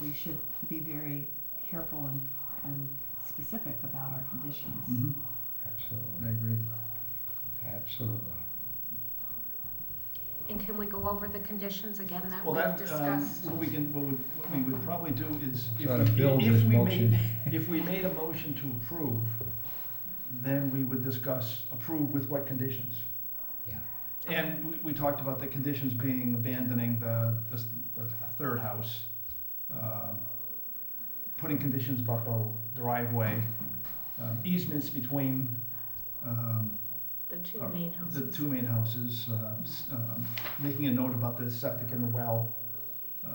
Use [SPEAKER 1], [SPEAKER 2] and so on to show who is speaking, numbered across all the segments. [SPEAKER 1] we should be very careful and, and specific about our conditions.
[SPEAKER 2] Mm-hmm.
[SPEAKER 3] hmm I
[SPEAKER 2] Absolutely,
[SPEAKER 3] agree.
[SPEAKER 2] absolutely.
[SPEAKER 4] And can we go over the conditions again that
[SPEAKER 3] Well,
[SPEAKER 4] we've
[SPEAKER 3] that, um,
[SPEAKER 4] discussed?
[SPEAKER 3] what we can, what would, what we would probably do is, if
[SPEAKER 2] Try to build
[SPEAKER 3] we, if
[SPEAKER 2] this
[SPEAKER 3] we
[SPEAKER 2] motion.
[SPEAKER 3] made, if we made a motion to approve, then we would discuss approve with what conditions.
[SPEAKER 2] Yeah.
[SPEAKER 3] And we, we talked about the conditions being abandoning the, this, the third house, um, putting conditions about the driveway, um, easements between, um,
[SPEAKER 4] The two
[SPEAKER 3] uh,
[SPEAKER 4] main
[SPEAKER 3] the
[SPEAKER 4] houses.
[SPEAKER 3] two main houses, uh, s- um, making a note about the septic and the well. uh,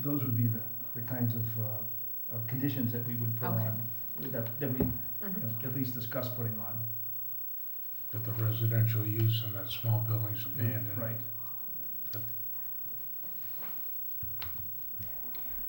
[SPEAKER 3] Those would be the, the kinds of, uh, of conditions that we would put
[SPEAKER 4] Okay.
[SPEAKER 3] on, that, that we
[SPEAKER 4] Mhm.
[SPEAKER 3] have at least discuss putting on.
[SPEAKER 5] That the residential use in that small building's abandoned.
[SPEAKER 3] Right.
[SPEAKER 2] So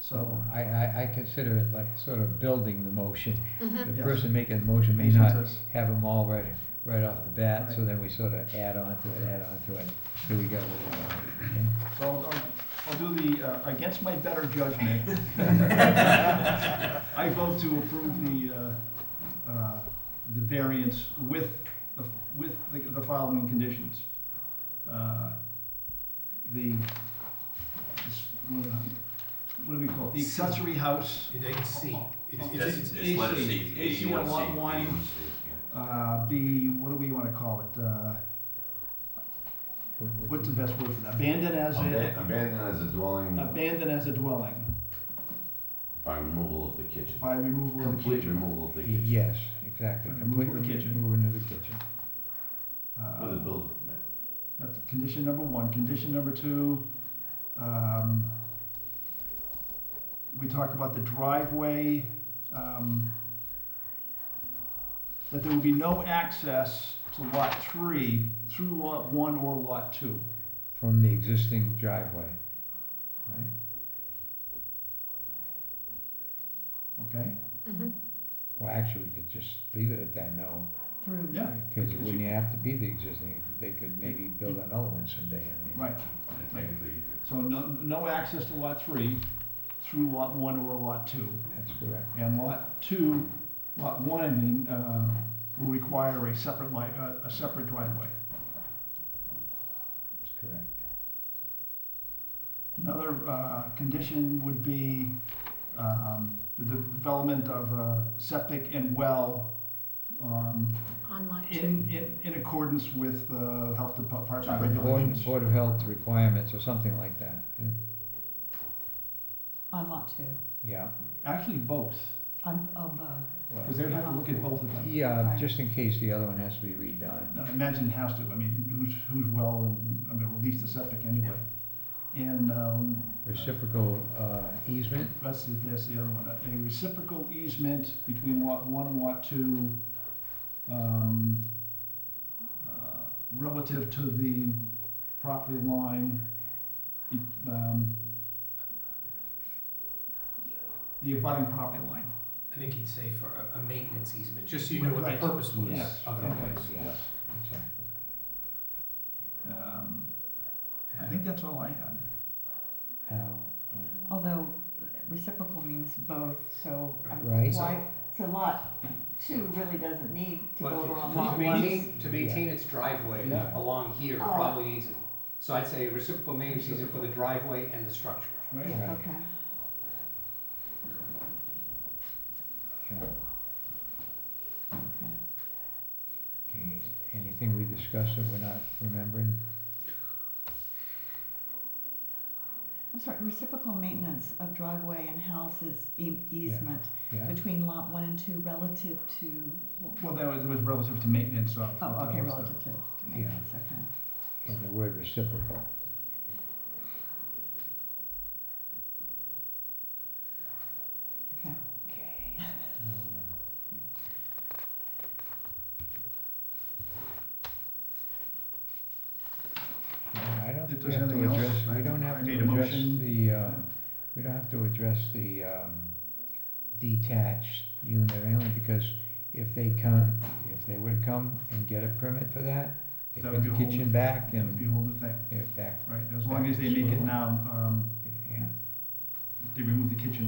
[SPEAKER 3] So,
[SPEAKER 2] I, I, I consider it like sort of building the motion.
[SPEAKER 4] Mhm.
[SPEAKER 2] The
[SPEAKER 3] Yes.
[SPEAKER 2] person making the motion may
[SPEAKER 3] Motion
[SPEAKER 2] not
[SPEAKER 3] says-
[SPEAKER 2] have them all right, right off the bat, so
[SPEAKER 3] Right.
[SPEAKER 2] then we sort of add on to it, add on to it. Here we go.
[SPEAKER 3] so I'll, I'll- I'll do the, uh, against my better judgment, I vote to approve the, uh, uh, the variance with, the with the the following conditions. Uh, The, this- what do we call it? The accessory house
[SPEAKER 5] It ain't C.
[SPEAKER 6] Yes, it's, it's letter C,
[SPEAKER 3] AC, AC
[SPEAKER 6] eighty-one C.
[SPEAKER 3] lot one.
[SPEAKER 6] AC, yeah.
[SPEAKER 3] uh, be, what do we want to call it? Uh, What's the best word for that? Abandoned as
[SPEAKER 6] Aban-
[SPEAKER 3] a,
[SPEAKER 6] Abandoned as a dwelling
[SPEAKER 3] abandoned as a dwelling
[SPEAKER 6] by removal of the kitchen.
[SPEAKER 3] by removal of the
[SPEAKER 6] Complete
[SPEAKER 3] kitchen.
[SPEAKER 6] removal of the kitchen
[SPEAKER 2] Yes, exactly.
[SPEAKER 3] Remove
[SPEAKER 2] Complete
[SPEAKER 3] the kitchen.
[SPEAKER 2] Move into the kitchen.
[SPEAKER 3] Uh,
[SPEAKER 6] with a building permit.
[SPEAKER 3] That's condition number one. Condition number two, um, we talk about the driveway, um, that there will be no access to lot three through lot one or lot two.
[SPEAKER 2] From the existing driveway, right?
[SPEAKER 3] Okay?
[SPEAKER 4] Mhm.
[SPEAKER 2] Well, actually, we could just leave it at that, no,
[SPEAKER 1] Through
[SPEAKER 3] Yeah.
[SPEAKER 2] because it wouldn't have to be the existing, they could maybe build another one someday. I mean.
[SPEAKER 3] Right.
[SPEAKER 6] And Technically, you could-
[SPEAKER 3] So no, no access to lot three through lot one or lot two.
[SPEAKER 2] That's correct.
[SPEAKER 3] And lot two, lot one, I mean, uh, will require a separate li, uh, a separate driveway.
[SPEAKER 2] That's correct.
[SPEAKER 3] Another uh, condition would be um, the de- development of a septic and well um,
[SPEAKER 4] Online two.
[SPEAKER 3] in, in, in accordance with the health department
[SPEAKER 2] Board-
[SPEAKER 3] regulations.
[SPEAKER 2] Board of Health requirements or something like that. yeah.
[SPEAKER 1] on lot two,
[SPEAKER 2] Yeah,
[SPEAKER 3] Actually, both,
[SPEAKER 1] on, on both.
[SPEAKER 2] well,
[SPEAKER 3] because they would have to look at both of them.
[SPEAKER 2] yeah, just in case the other one has to be redone.
[SPEAKER 3] Now, imagine it has to, I mean, who's, who's well, and, I mean, release the septic anyway. And um,
[SPEAKER 2] Reciprocal uh, easement,
[SPEAKER 3] That's, the- that's the other one, a reciprocal easement between lot one and lot two, um, uh, relative to the property line, be- um, the abutting property line.
[SPEAKER 7] I think he'd say for a, a maintenance easement, just so you know what the
[SPEAKER 3] Right.
[SPEAKER 7] purpose was
[SPEAKER 3] Yes.
[SPEAKER 7] of the
[SPEAKER 3] Okay.
[SPEAKER 7] place.
[SPEAKER 2] yes, exactly.
[SPEAKER 3] Um, I think that's all I had.
[SPEAKER 2] Now, um,
[SPEAKER 1] Although reciprocal means both, so I'm-
[SPEAKER 2] Right.
[SPEAKER 1] why, so lot two really doesn't need to go
[SPEAKER 7] But
[SPEAKER 1] over on
[SPEAKER 7] to
[SPEAKER 1] lot one.
[SPEAKER 7] maintain, to maintain its driveway
[SPEAKER 3] Yeah.
[SPEAKER 7] along here
[SPEAKER 1] Oh.
[SPEAKER 7] probably needs it. So I'd say reciprocal maintenance easement for the driveway and the structure.
[SPEAKER 3] Right?
[SPEAKER 2] right,
[SPEAKER 1] Okay.
[SPEAKER 2] yeah. Okay, anything we discussed that we're not remembering?
[SPEAKER 1] I'm sorry, reciprocal maintenance of driveway and houses e- easement
[SPEAKER 2] Yeah,
[SPEAKER 1] between lot one and two relative to,
[SPEAKER 3] Well, that was, it was relative to maintenance of.
[SPEAKER 1] oh, okay,
[SPEAKER 3] of the-
[SPEAKER 1] relative to, to maintenance, okay.
[SPEAKER 2] and the word reciprocal.
[SPEAKER 1] Okay.
[SPEAKER 2] Okay. um, Yeah, I don't
[SPEAKER 3] If
[SPEAKER 2] think we
[SPEAKER 3] there's
[SPEAKER 2] have to
[SPEAKER 3] anything else,
[SPEAKER 2] address,
[SPEAKER 3] I-
[SPEAKER 2] we don't
[SPEAKER 3] I
[SPEAKER 2] have
[SPEAKER 3] made a
[SPEAKER 2] to address
[SPEAKER 3] motion.
[SPEAKER 2] the, uh, we don't have to address the um, detached unit only because if they come, if they would come and get a permit for that, they
[SPEAKER 3] That
[SPEAKER 2] put the
[SPEAKER 3] would be a whole-
[SPEAKER 2] kitchen back
[SPEAKER 3] That would be
[SPEAKER 2] and,
[SPEAKER 3] a whole new thing,
[SPEAKER 2] yeah, back,
[SPEAKER 3] right, as long as they make it now, um,
[SPEAKER 2] yeah.
[SPEAKER 3] they remove the kitchen